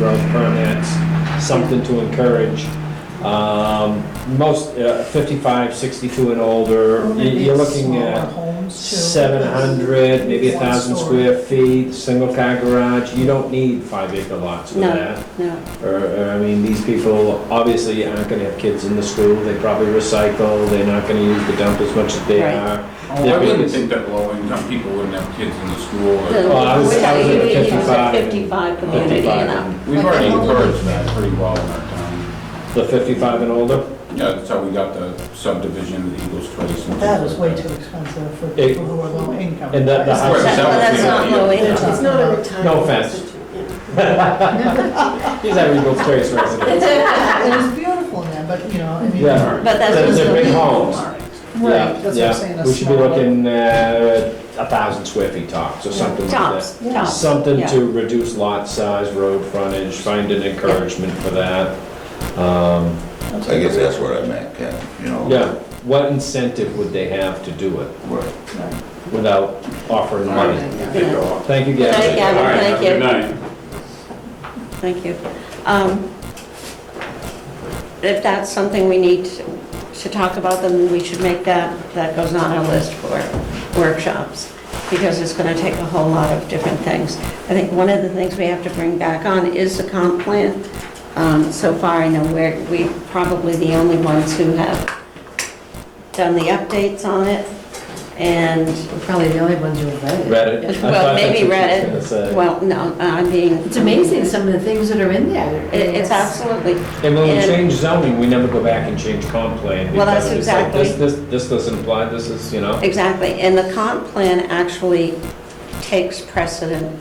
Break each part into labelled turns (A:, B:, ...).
A: road permits, something to encourage. Um, Most, uh, 55, 62 and older,
B: Well,
A: you-
B: maybe
A: you're looking
B: smaller
A: at
B: homes, too.
A: 700, maybe
B: One
A: 1,000
B: story.
A: square feet, single-car garage. You don't need five acre lots for
C: No.
A: that.
C: No,
A: Or, or, I mean, these people obviously aren't gonna have kids in the school, they probably recycle, they're not gonna use the dump as much as they
C: Right.
A: are.
D: Oh, I wouldn't think that low-income people wouldn't have kids in the school.
C: The-
D: or-
A: Well, I was-
C: we're
A: I was
C: talking
A: at
C: it's a
A: 55.
C: 55 community, you
A: 55.
C: know.
D: We've already encouraged that pretty well in our town.
A: The 55 and older?
D: Yeah, that's how we got the subdivision, the Eagles Place. and
B: That
D: things
B: is
D: like
B: way
D: that.
B: too expensive for
A: It-
B: people who are low income.
A: And that- the
B: It's
A: high-
B: like-
D: Right,
C: That-
D: that
C: well,
D: was
C: that's
D: the
C: not
D: idea.
C: low income.
B: It's not a
E: retirement.
A: No offense. He's having a place resident.
B: It is beautiful in there, but, you know, I mean.
A: Yeah.
C: But that's
A: They're-
C: just
A: they're
C: the
A: big
C: people.
A: homes. Yeah,
B: Right, that's what
A: yeah.
B: I'm saying. a
A: We should be
B: smaller-
A: looking at 1,000 square feet tops or something like that.
C: Tops, tops.
A: Something
C: yeah.
A: to reduce lot size, road frontage, find an encouragement for that. Um,
F: I guess that's what I meant, Ken, you know?
A: Yeah, what incentive would they have to do it
F: Right.
A: without offering money?
C: Yeah.
A: Thank you, Gavin.
C: Thank you,
D: All right, have a
C: thank
D: good
C: you,
D: night.
C: thank you. Um, If that's something we need to talk about, then we should make that, that goes on our list for workshops, because it's gonna take a whole lot of different things. I think one of the things we have to bring back on is the comp plan. Um, So far, I know we're, we probably the only ones who have done the updates on it, and
E: We're probably the only ones who have read it.
A: Read it. I
C: Well,
A: thought that's
C: maybe
A: what
C: read
A: she was
C: it.
A: gonna say.
C: Well, no, I mean.
E: It's amazing, some of the things that are in there.
C: It- It's absolutely,
A: And when we
C: and-
A: change zoning, we never go back and change comp plan.
C: Well, that's
A: because it's like,
C: exactly-
A: This, this, this doesn't apply, this is, you know,
C: exactly. And the comp plan actually takes precedent.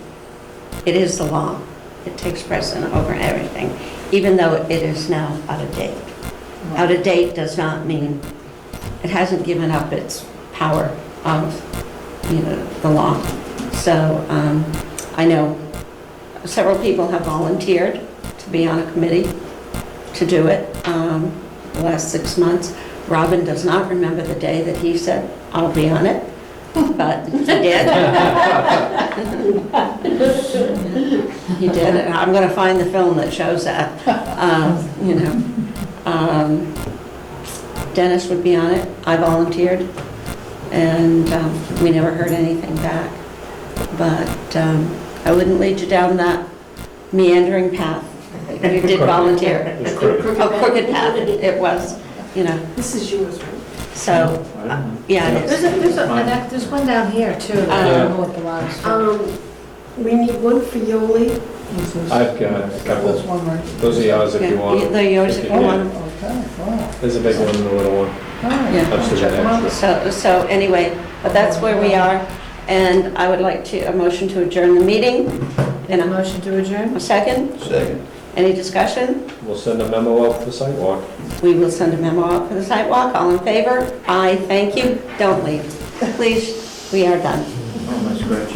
C: It is the law. It takes precedent over everything, even though it is now out of date. Out of date does not mean, it hasn't given up its power of, you know, the law. So um, I know several people have volunteered to be on a committee to do it um, the last six months. Robin does not remember the day that he said, "I'll be on it," but he did. He did, and I'm going to find the film that shows that, um, you know. Um, Dennis would be on it, I volunteered, and um, we never heard anything back. But um, I wouldn't lead you down that meandering path. You did volunteer.
A: it's crooked.
C: A crooked path, it was, you know,
E: This is yours, right?
C: so, yeah, it
E: There's,
C: is.
E: a- there's, a- and that- there's one down here too, that I don't know
C: Uh,
E: what belongs to.
G: Um, we need one for Yoli.
B: This is-
A: I've got a
B: This
A: couple,
B: one right.
A: those are yours if you
C: Yeah,
A: want.
C: They're yours if you want.
B: Okay, wow.
A: There's a big one and a little one.
B: All right.
C: Yeah.
A: That's the
B: Check them out.
A: extra.
C: So, so anyway, but that's where we are, and I would like to, a motion to adjourn the meeting. And
E: And a
C: a
E: motion to adjourn?
C: a second,
F: Second.
C: any discussion?
A: We'll send a memo out for the sidewalk.
C: We will send a memo out for the sidewalk, all in
D: Oh,
C: favor? Aye, thank you, don't leave. Please, we are done.